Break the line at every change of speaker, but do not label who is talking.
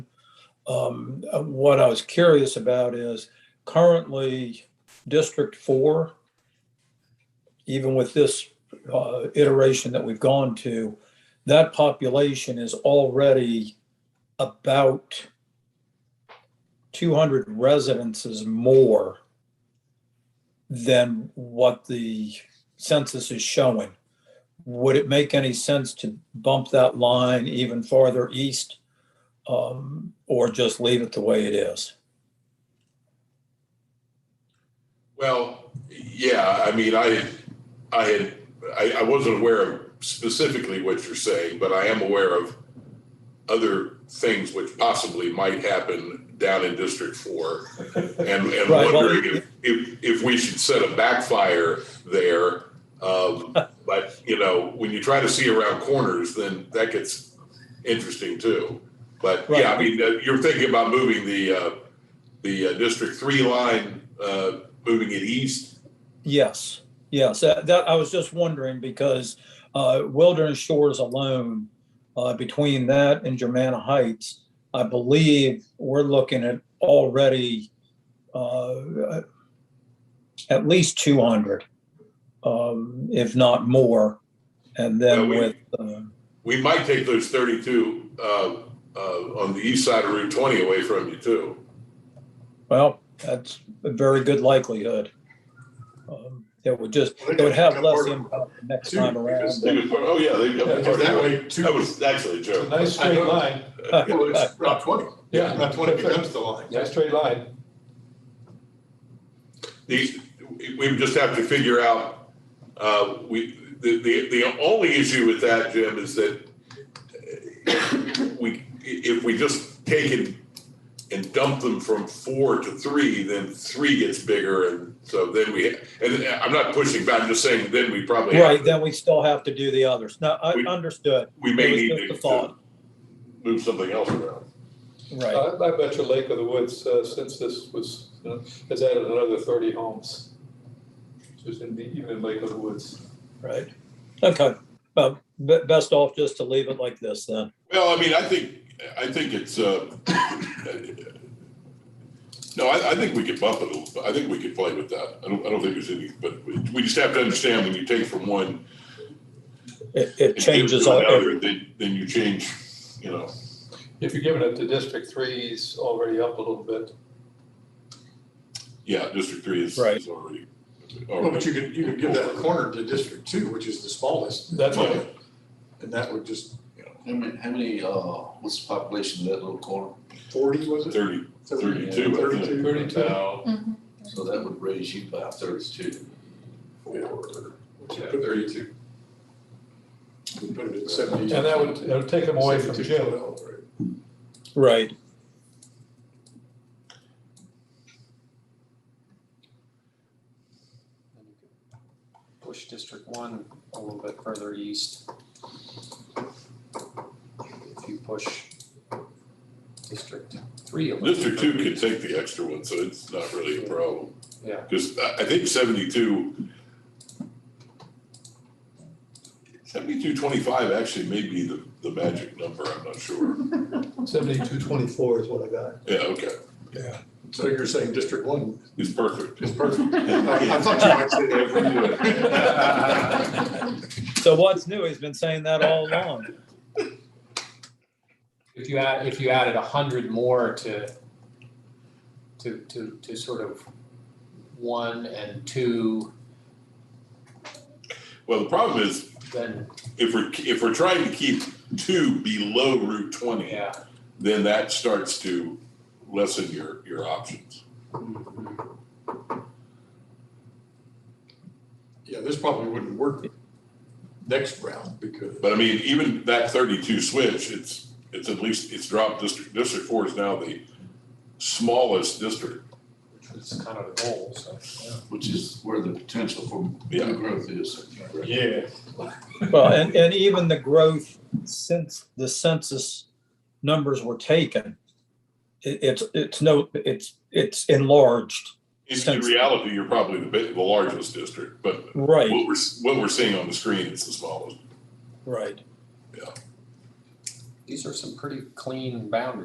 Um, uh, what I was curious about is currently District Four, even with this, uh, iteration that we've gone to, that population is already about two hundred residences more than what the census is showing. Would it make any sense to bump that line even farther east? um, or just leave it the way it is.
Well, yeah, I mean, I, I had, I, I wasn't aware of specifically what you're saying, but I am aware of other things which possibly might happen down in District Four. And, and
Right, well-
wondering if, if, if we should set a backfire there. Um, but, you know, when you try to see around corners, then that gets interesting too. But yeah, I
Right.
mean, uh, you're thinking about moving the, uh, the uh, District Three line, uh, moving it east.
Yes, yes. That, that- I was just wondering because uh, Wilderness Shores alone, uh, between that and Germanna Heights, I believe we're looking at already uh, at least 200, um, if not more. And then
Well, we-
with uh,
We might take those thirty-two uh, uh, on the east side of Route twenty away from you too.
Well, that's a very good likelihood. Um, It would just,
Well, they
it would have
got
less
more-
impact the next
two,
time
Because
around.
they would- Oh, yeah, they,
because that way, two-
that was actually a joke.
Nice
I
straight
know.
line,
Uh,
Well, it's Route twenty.
Yeah.
Route twenty becomes the line. Nice straight line.
These, we we just have to figure out, uh, we, the, the, the only issue with that, Jim, is that uh, we, if we just take and, and dump them from four to three, then three gets bigger and so then we, and I'm not pushing back, I'm just saying then we probably. have
Right,
to-
then we still have to do the others. No, I
We-
understood.
we may
It
need
was
to
just a thought.
to move something else around.
Right,
I, I bet your Lake of the Woods uh, census was, you know, has added another thirty homes. Just in the, even in Lake of the Woods.
right. Okay, well, be- best off just to leave it like this then.
Well, I mean, I think, I think it's, uh, no, I, I think we could bump it a little, bit. I think we could play with that. I don't, I don't think there's any, but we we just have to understand when you take from one.
It, it
and give
changes
to
all,
another, Then, then you change, you know,
If you're giving it to District Three, he's already up a little bit.
yeah, District Three is,
Right.
is already.
Well, but you could, you could give that corner to District Two, which is the smallest,
That's what,
and that would just, you know,
How many, how many, uh, what's the population of that little corner?
forty, was it?
Thirty, thirty-two, I think.
Thirty-two.
thirty-two.
So that would raise you by thirty-two.
Yeah,
thirty-two. We put it at seventy.
And that would, that would take him away from Jim.
right,
And you could Push District One a little bit further east. If you push District Three a little.
District two can take the extra one, so it's not really a problem.
Yeah.
Because I, I think seventy-two. Seventy-two twenty-five actually may be the, the magic number, I'm not sure.
Seventy-two twenty-four is what I got.
Yeah, okay,
So you're saying District One
it's perfect.
is perfect? I I thought you might say that.
so what's new, he's been saying that all along.
If you add, if you added a hundred more to, to, to, to sort of one and two,
Well, the problem is,
then,
if we're, if we're trying to keep two below Route twenty,
yeah.
then that starts to lessen your, your options.
Yeah, this probably wouldn't work next round because.
But I mean, even that thirty-two switch, it's, it's at least, it's dropped district, district four is now the smallest district.
Which was kind of the goal, so, yeah.
Which is where the potential for
Yeah.
new growth is.
Yeah.
Well, and, and even the growth since the census numbers were taken, it, it's, it's no, it's, it's enlarged.
In- In
Sense.
reality, you're probably the big, the largest district, but
Right,
what we're, s- what we're seeing on the screen is the smallest.
right.
These are some pretty clean boundaries.